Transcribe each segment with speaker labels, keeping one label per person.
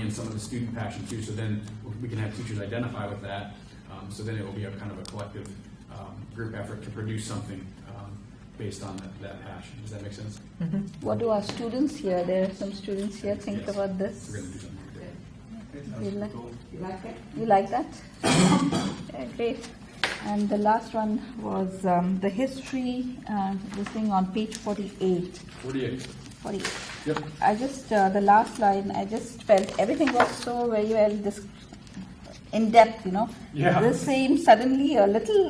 Speaker 1: in some of the student passion too, so then we can have teachers identify with that. Um, So then it will be a kind of a collective um, group effort to produce something um, based on that- that passion. Does that make sense?
Speaker 2: What do our students here? There are some students here think
Speaker 1: Yes.
Speaker 2: about
Speaker 1: We're
Speaker 2: this.
Speaker 1: going to do something. with it.
Speaker 2: You like,
Speaker 3: You like it?
Speaker 2: you like that? Yeah, great. And the last one was um, the history, uh, this thing on page 48.
Speaker 1: Forty-eight.
Speaker 2: 48.
Speaker 1: Yep.
Speaker 2: I just, uh, the last line, I just felt everything was so very well dis- in depth, you know.
Speaker 1: Yeah.
Speaker 2: This seemed suddenly a little,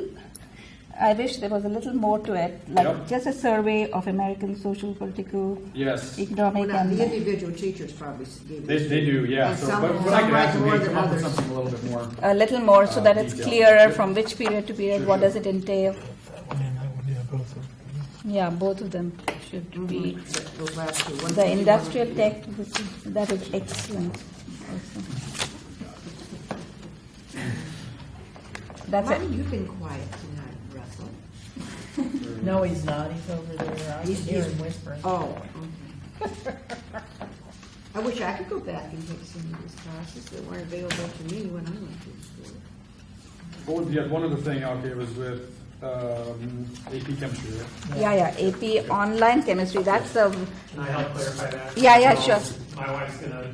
Speaker 2: I wish there was a little more to it, like
Speaker 1: Yep.
Speaker 2: just a survey of American social, political,
Speaker 1: Yes.
Speaker 3: Well,
Speaker 2: economic,
Speaker 3: now,
Speaker 2: and
Speaker 3: the individual teachers probably gave
Speaker 1: They,
Speaker 3: this.
Speaker 1: they do, yeah.
Speaker 3: And
Speaker 1: So,
Speaker 3: some-
Speaker 1: but what I
Speaker 3: some
Speaker 1: can
Speaker 3: write
Speaker 1: ask
Speaker 3: more
Speaker 1: is
Speaker 3: than
Speaker 1: come up with
Speaker 3: others.
Speaker 1: something a little bit more.
Speaker 2: a little more so
Speaker 1: Uh,
Speaker 2: that it's
Speaker 1: detail.
Speaker 2: clearer from which period to period, what does it entail?
Speaker 4: And I would, yeah, both of them.
Speaker 2: Yeah, both of them should be.
Speaker 3: Those Mm-hmm. last two, one
Speaker 2: The
Speaker 3: fifty, one-
Speaker 2: industrial tech, this is- that is excellent. also. That's it.
Speaker 3: Martin, you've been quiet tonight, Russell.
Speaker 5: No, he's not. He's over there. I can
Speaker 3: He's-
Speaker 5: hear
Speaker 3: he's-
Speaker 5: him whispering.
Speaker 3: Oh, okay. I wish I could go back and take some of these classes that weren't available to me when I went to school.
Speaker 1: Oh, yeah, one other thing, okay, was with um, AP chemistry, right?
Speaker 2: Yeah, yeah, AP online chemistry, that's the,
Speaker 6: Can I help clarify that?
Speaker 2: Yeah, yeah,
Speaker 6: So,
Speaker 2: sure.
Speaker 6: My wife's gonna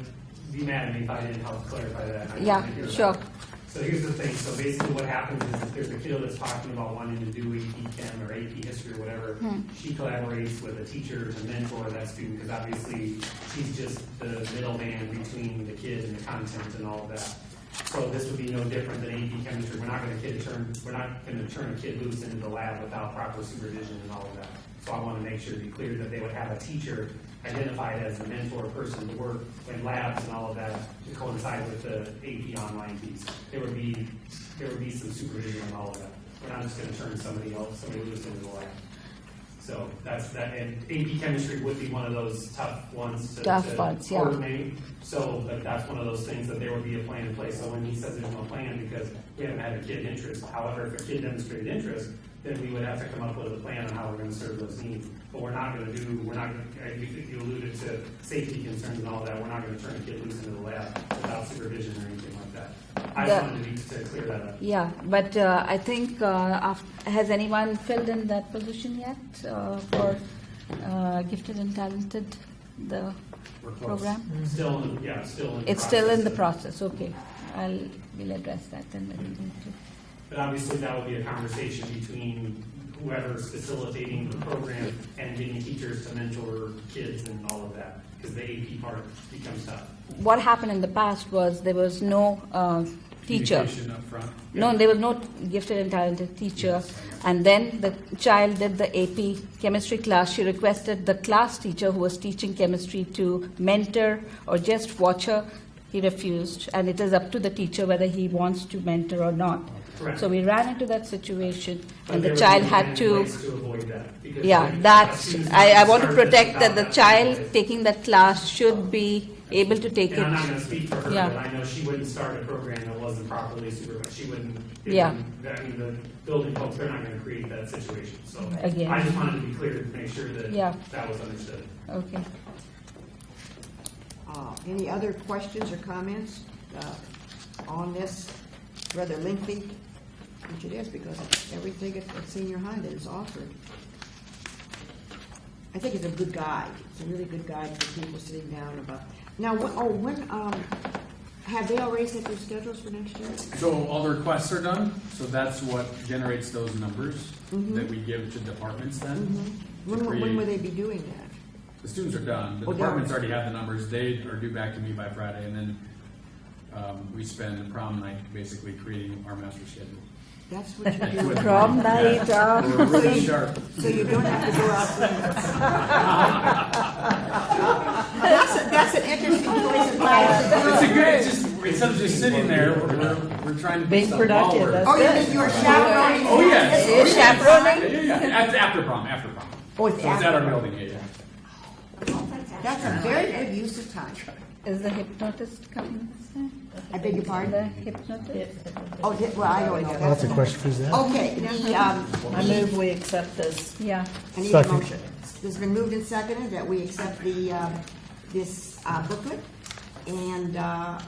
Speaker 6: be mad at me if I didn't help clarify that. and I
Speaker 2: Yeah,
Speaker 6: wanna hear that.
Speaker 2: sure.
Speaker 6: So here's the thing, so basically what happens is if there's a kid that's talking about wanting to do AP Chem or AP History or whatever,
Speaker 2: Hmm.
Speaker 6: she collaborates with a teacher to mentor that student, because obviously she's just the middleman between the kid and the content and all of that. So this would be no different than AP Chemistry, we're not gonna kid turn, we're not gonna turn a kid loose into the lab without proper supervision and all of that. So I wanna make sure to be clear that they would have a teacher identified as the mentor person to work in labs and all of that to coincide with the AP online piece. There would be, there would be some supervision and all of that. We're not just gonna turn somebody else, somebody loose into the lab. So that's, that, and AP chemistry would be one of those tough ones to.
Speaker 2: Tough
Speaker 6: to
Speaker 2: ones, yeah.
Speaker 6: Coordinate, so, but that's one of those things that there would be a plan in place, so when he says there's no plan, because we haven't had a kid interest, however, if a kid demonstrated interest, then we would have to come up with a plan on how we're gonna serve those needs, but we're not gonna do, we're not, gonna- uh, you you alluded to safety concerns and all that, we're not gonna turn a kid loose into the lab without supervision or anything like that. I just
Speaker 2: The-
Speaker 6: wanted to be, to clear that up.
Speaker 2: yeah, but uh, I think, uh, af- has anyone filled in that position yet uh, for uh, gifted and talented, the
Speaker 6: We're close.
Speaker 2: program?
Speaker 6: Still, in the- yeah, still in. the
Speaker 2: It's still in the
Speaker 6: of-
Speaker 2: process, okay. I'll, we'll address that then. when we get to-
Speaker 6: But obviously, that would be a conversation between whoever's facilitating the program and getting teachers to mentor kids and all of that, because the AP part becomes tough.
Speaker 2: What happened in the past was there was no uh, teacher.
Speaker 1: Communication up front.
Speaker 2: No, there was no gifted and talented teacher. And then the child did the AP chemistry class. She requested the class teacher who was teaching chemistry to mentor or just watch her. He refused, and it is up to the teacher whether he wants to mentor or not.
Speaker 6: Correct.
Speaker 2: So we ran into that situation,
Speaker 6: But
Speaker 2: and the
Speaker 6: there would
Speaker 2: child
Speaker 6: be
Speaker 2: had
Speaker 6: many
Speaker 2: to.
Speaker 6: ways avoid that, because
Speaker 2: Yeah,
Speaker 6: when
Speaker 2: that's,
Speaker 6: students
Speaker 2: I, I want to
Speaker 6: start this
Speaker 2: protect that the
Speaker 6: without
Speaker 2: child
Speaker 6: knowledge-
Speaker 2: taking that class should be able to take
Speaker 6: And I'm not
Speaker 2: it.
Speaker 6: gonna speak for her,
Speaker 2: Yeah.
Speaker 6: but I know she wouldn't start a program that wasn't properly supervised, she wouldn't. it
Speaker 2: Yeah.
Speaker 6: wouldn't- I mean, the building folks, they're not gonna create that situation, so.
Speaker 2: Again.
Speaker 6: I just wanted to be clear to make sure that
Speaker 2: Yeah.
Speaker 6: that was understood.
Speaker 2: Okay.
Speaker 3: Uh, Any other questions or comments uh, on this rather lengthy, which it is because it's everything at at senior high that is offered? I think it's a good guide. It's a really good guide for people sitting down about, now, when- oh, when, um, have they already set their schedules for next year?
Speaker 1: So all the requests are done, so that's what generates those numbers
Speaker 3: Mm-hmm.
Speaker 1: that we give to departments then. to
Speaker 3: When, will- when
Speaker 1: create-
Speaker 3: will they be doing that?
Speaker 1: The students are done, the
Speaker 3: Oh, they are.
Speaker 1: departments already have the numbers, they are due back to me by Friday, and then um, we spend the prom night basically creating our master schedule.
Speaker 3: That's what you do.
Speaker 1: With-
Speaker 2: Prom night,
Speaker 1: Yeah.
Speaker 2: uh,
Speaker 1: We're really sharp.
Speaker 3: So you don't have to go out there. That's, a- that's an interesting choice of life.
Speaker 1: It's a good, it's just, instead of just sitting there, we're, we're trying to.
Speaker 5: Being
Speaker 1: do something while
Speaker 5: productive,
Speaker 1: we're-
Speaker 5: that's-
Speaker 3: Oh, you mean you were chaperoning?
Speaker 1: Oh, yes. Oh, yes.
Speaker 2: Chaperoning?
Speaker 1: Yeah, yeah, yeah, after, after prom, after prom.
Speaker 3: Oh, it's
Speaker 1: So it's at our
Speaker 3: after.
Speaker 1: building, yeah, yeah.
Speaker 3: That's a very good use of time.
Speaker 2: Is the hypnotist coming this time?
Speaker 3: I beg your
Speaker 2: The
Speaker 3: pardon?
Speaker 2: hypnotist?
Speaker 3: Oh, did, well, I already know
Speaker 4: That's a
Speaker 3: that.
Speaker 4: question for Zach.
Speaker 3: Okay, the, um,
Speaker 5: I move we accept this.
Speaker 2: Yeah.
Speaker 3: I need a
Speaker 4: Second.
Speaker 3: motion. It's been moved and seconded that we accept the, um, this uh, booklet and uh,